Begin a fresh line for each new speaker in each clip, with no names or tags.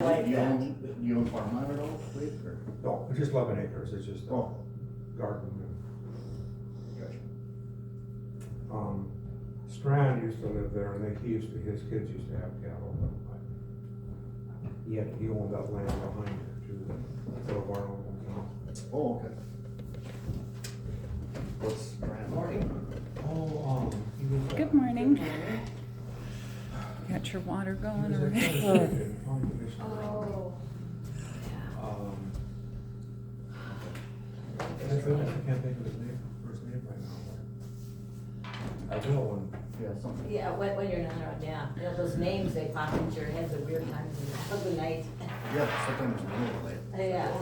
like
You
that.
own, you own farm land at all, Lee, or?
No, it's just eleven acres, it's just a
Oh.
garden.
Gotcha.
Um, Strand used to live there, and they, he used to, his kids used to have cattle, but I- he had, he owned that land behind it to the Boulevard Old Town.
Oh, okay. What's grand? Morning.
Oh, um, he was.
Good morning. Got your water going already?
already.
Oh,
Um, and I feel like I can't think of his name, first name right now. but I will, and
Yeah, something.
yeah, when, when you're not around, yeah, you know, those names, they pop into your heads at weird times in the middle of the night.
Yeah, sometimes it's real late.
Yeah.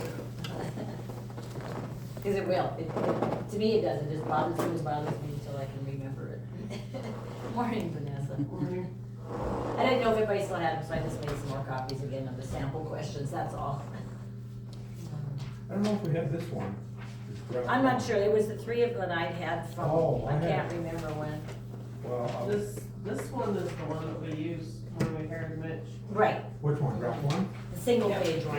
Cause it will, it, it- to me it does, it just bothers me, it bothers me until I can remember it. Morning, Vanessa. Morning. I didn't know if everybody still had them, so I just made some more copies again of the sample questions, that's all.
I don't know if we have this one. this draft
I'm not
one.
sure, it was the three of them I'd had from,
Oh, I
I can't
had-
remember when.
Well, uh,
This, this one is the one that we used when we hired Mitch.
Right,
which one, draft one?
the single page one.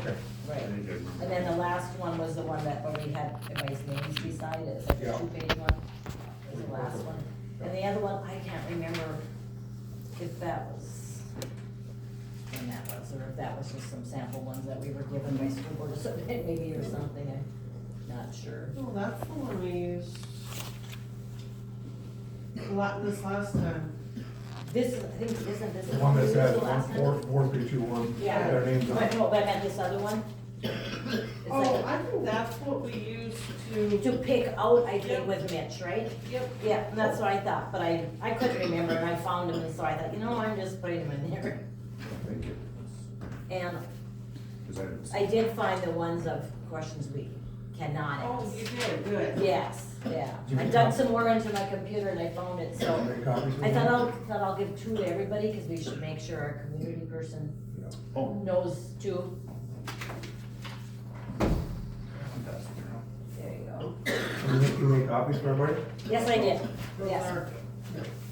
Okay,
Right, and then the last one was the one that, where we had everybody's names beside it, it's like
Yeah.
a two-page one, was the last one. And the other one, I can't remember if that was, when that was, or if that was just some sample ones that we were given by school board or something, maybe, or something, I'm not sure.
Well, that's the one we used. a lot this last time.
This, is- I think, isn't this?
the one that
this
says
the last
one, four,
one?
four, three, two, one,
Yeah.
their names on
But,
it.
no, but I meant this other one. It's
Oh,
like,
I think that's what we used to,
to pick out, I think, with Mitch, right?
yep,
Yeah, and that's what I thought, but I, I couldn't remember, and I found them, and so I thought, you know, I'm just putting them in there.
Thank you.
And
Cause I didn't. see-
I did find the ones of questions we cannot
oh, you
ask.
did, good.
Yes, yeah.
Do you
I
have-
dug some more into my computer and I found it,
Can I
so
make copies of
I thought
that?
I'll, thought I'll give two to everybody, cause we should make sure our community person
Yeah.
Oh,
knows two.
fantastic.
There you go.
Can you make, you make copies for everybody?
Yes, I did,
Those
yes.
are-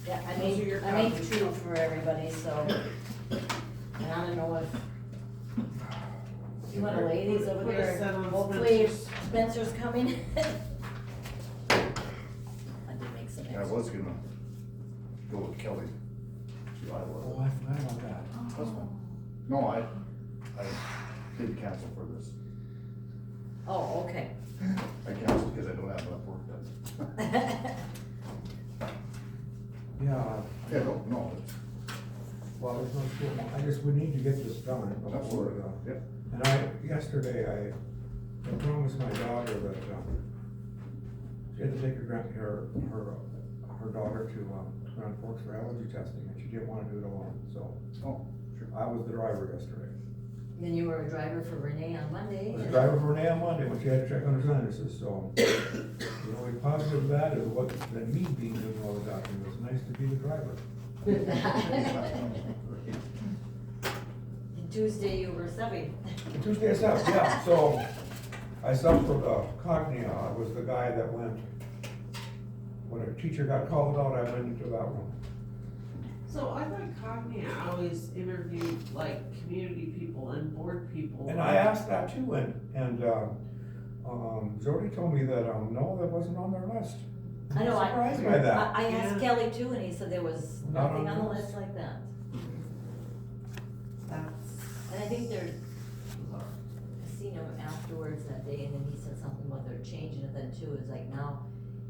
Yeah, I
Those are
made,
your
I made
copies.
two for everybody, so, and I don't know if. You wanna lay these over
Put a
there,
set on
hopefully if
Spencer's.
Spencer's coming. I did make some
Yeah, I
extra.
was gonna go with Kelly. to Iowa.
Oh, I forgot about that.
Oh, That's fine. No, I, I did cancel for this.
Oh, okay.
I canceled because I don't have enough work done.
Yeah,
Yeah, no, no,
well, there's no school, I just, we need to get this done.
it's
before,
absolutely,
uh,
yep.
And I, yesterday, I I promised my daughter that, um, she had to take her grand, her, her, her daughter to, um, Grand Forks for allergy testing, and she didn't wanna do it alone, so.
Oh, sure.
I was the driver yesterday.
Then you were a driver for Renee on Monday.
was a driver for an AM Monday when she had to check on her sinuses, so. You know, we positive that is what, that me being doing all the docking, it was nice to be the driver.
And Tuesday you were subbing.
And Tuesday I stopped, yeah, so I stopped for the Cognia, I was the guy that went, when a teacher got called out, I went into that room.
So I thought Cognia always interviewed like community people and board people.
And I asked that too, and, and, um, um, Jody told me that, um, no, that wasn't on their list.
I know, I,
Surprised by that.
I I asked
Yeah.
Kelly too, and he said there was
Not on
nothing on the
yours.
list like that.
That's,
And I think they're, I seen him afterwards that day, and then he said something about they're changing it then too, it's like now,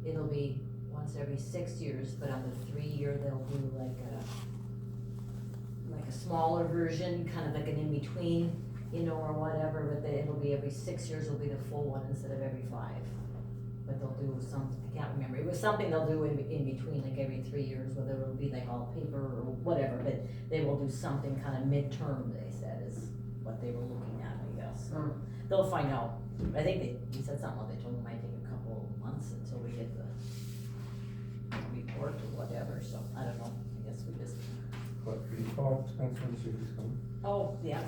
it'll be once every six years, but on the three-year, they'll do like a, like a smaller version, kind of like an in-between, you know, or whatever, but they, it'll be every six years will be the full one instead of every five. But they'll do some, I can't remember, it was something they'll do in, in between, like every three years, whether it'll be like all paper or whatever, but they will do something kind of midterm, they said, is what they were looking at, I guess.
Hmm.
They'll find out. I think they, he said something, about they told him it might take a couple of months until we get the report or whatever, so I don't know. I guess we just,
But he called Spencer and said he's coming.
oh, yeah.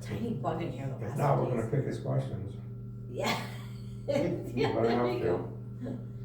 Tiny bug in here the
If
last
not,
few
we're gonna
days.
pick his questions.
Yeah.
We're
Yeah,
gonna
there
have
you
to.
go. Um,